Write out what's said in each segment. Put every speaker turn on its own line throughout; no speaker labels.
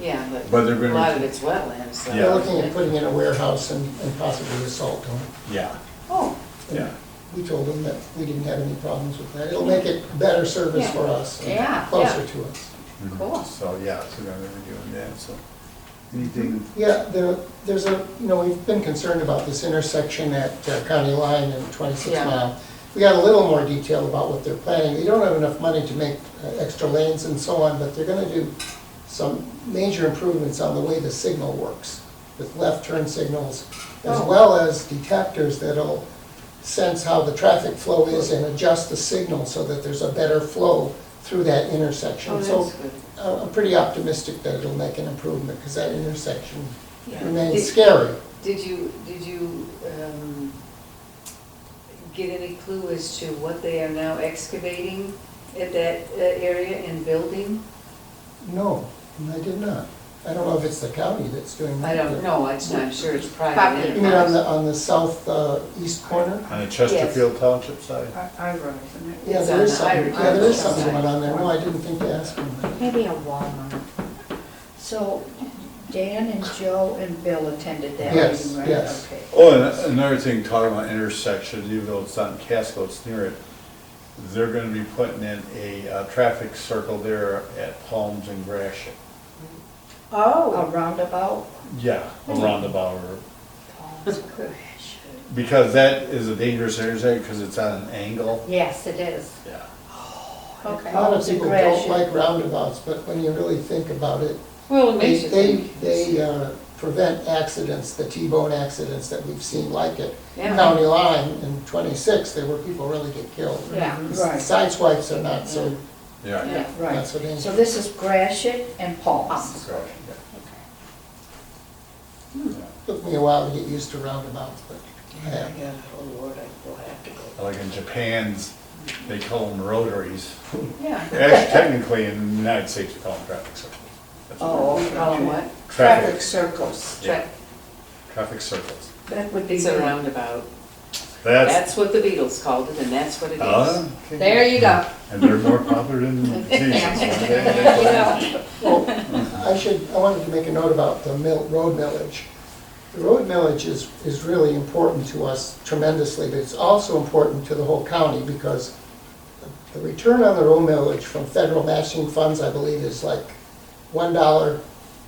Yeah,
But
but
they're
a
gonna-
lot of it's wetlands, so.
Yeah.
They're looking at putting in a warehouse and and possibly a salt dome.
Yeah,
Oh,
yeah.
We told them that we didn't have any problems with that. It'll make it better service for us. and
Yeah, yeah.
Closer to us.
Cool.
Mm-hmm. So, yeah, so now they're doing that, so. Anything?
Yeah, there, there's a, you know, we've been concerned about this intersection at uh, County Line and 26
Yeah.
Mile. We got a little more detail about what they're planning. They don't have enough money to make uh, extra lanes and so on, but they're gonna do some major improvements on the way the signal works with left turn signals, as
Oh.
well as detectors that'll sense how the traffic flow is and adjust the signal so that there's a better flow through that intersection.
oh,
So
that's good.
Uh, I'm I'm pretty optimistic that it'll make an improvement, because that intersection
Yeah. Did-
remains scary.
Did you, did you um, get any clue as to what they are now excavating at that uh, area and building?
No, I did not. I don't know if it's the county that's doing
I
that.
don't know, it's, I'm sure it's private
Private.
You mean on
enterprise.
the, on the south, uh, east corner?
On the Chesterfield Township side?
I road, isn't it?
Yeah,
It's
there
on
is
the
something,
Irish
yeah, there is
side.
something going on there. No, I didn't think to ask him that.
Maybe a Walmart. So Dan and Joe and Bill attended that
Yes,
meeting, right?
yes.
Okay.
Oh, and another thing, talking about intersections, even though it's not in Casco, it's near it. They're gonna be putting in a, uh, traffic circle there at Palms and Gratiot.
A
Oh,
roundabout?
Yeah, a roundabout or,
Paul's Crush.
because that is a dangerous intersection, because it's on an angle.
Yes, it is.
Yeah.
A
Okay.
lot of
Paul's
people
Crush.
don't like roundabouts, but when you really think about it,
Well, it
they,
makes you
they,
think.
they uh, prevent accidents, the T-bone accidents that we've seen like it.
Yeah.
County line in twenty-six, there were people really get killed.
Yeah, right,
Side swipes are not so,
Yeah.
Yeah.
not
right.
so dangerous.
So this is Grashit and Paul's.
Gratiot, yeah.
Took me a while to get used to roundabouts, but I have.
Yeah, oh Lord, I will have to go.
Like in Japan's, they call them rotaries.
Yeah.
Actually, technically, in the United States, we call them traffic circles. That's what
Oh,
they're
Oh,
called.
what?
Traffic circles.
Yeah.
Check.
Traffic circles.
That would be
It's a
good.
roundabout.
That's.
That's what the Beatles called it, and that's what it
Ah,
is.
okay.
There you go.
And they're more popular than Jesus.
I should, I wanted to make a note about the mill, road millage. The road millage is, is really important to us tremendously, but it's also important to the whole county because the return on the road millage from federal matching funds, I believe, is like one dollar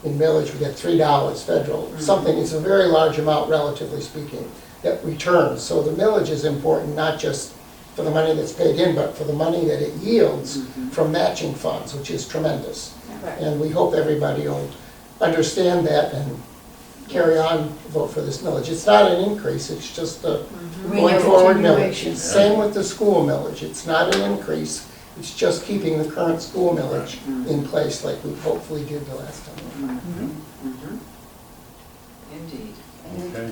in millage, we get three dollars federal, something, it's a very large amount relatively speaking, that returns. So the millage is important, not just for the money that's paid in, but for the money that it yields from matching funds, which is tremendous.
Right.
And we hope everybody will understand that and carry on, vote for this millage. It's not an increase, it's just a going forward millage.
Recontinuation.
It's Same with the school millage, it's not an increase, it's just keeping the current school millage in place like we hopefully did the last time.
Mhm. Indeed.
Okay.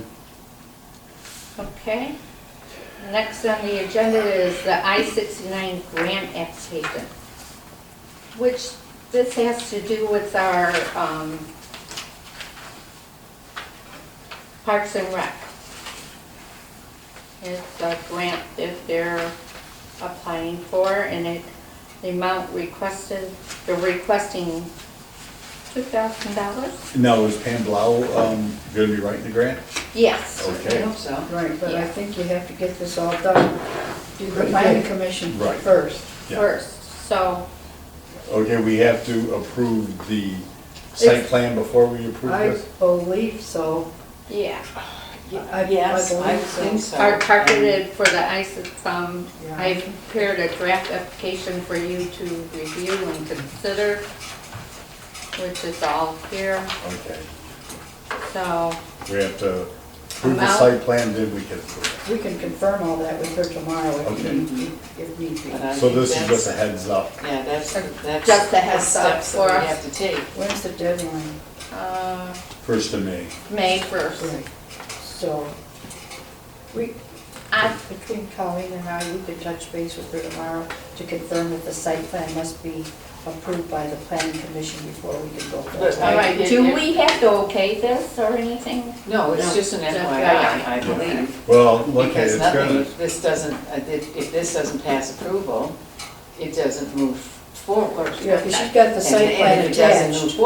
Okay. Next on the agenda is the I-69 grant application, which this has to do with our um, Parks and Rec. It's a grant that they're applying for, and it, the amount requested, they're requesting $2,000?
Now, is Pam Blau, um, gonna be writing the grant?
Yes.
I
Okay.
hope so.
right, but I
Yeah.
think you have to get this all done. Do the planning commission
Right.
first.
Yeah.
First, so
Okay, we have to approve the site
It's-
plan before we approve
I
this?
believe so.
Yeah,
I- I
Yes, I
believe so.
think so.
our targeted for the ISIS, um,
Yeah.
I prepared a draft application for you to review and consider, which is all here,
Okay.
so,
We have to approve the
Amount?
site plan, then we can approve
We can confirm all that with her tomorrow if
Okay.
need be, if need be.
But I
it. So
think
this is
that's-
just a heads up.
Yeah, that's, that's.
Just a heads up
steps that we
for us.
have to take.
When's the deadline?
uh,
First of May.
May first.
So, we,
I,
between Colleen and I, we could touch base with her tomorrow to confirm that the site plan must be approved by the planning commission before we can go forward.
But I-
all right,
Yeah,
do
yeah.
we have to okay this or anything?
No, it's
No,
just an
just
FYI, I
FYI.
believe.
Well, look,
Because
it's
nothing,
gonna,
if this doesn't, uh, if if this doesn't pass approval, it doesn't move forward.
Yeah, because she's got the
And-
site plan
And if it doesn't
attached.
move forward,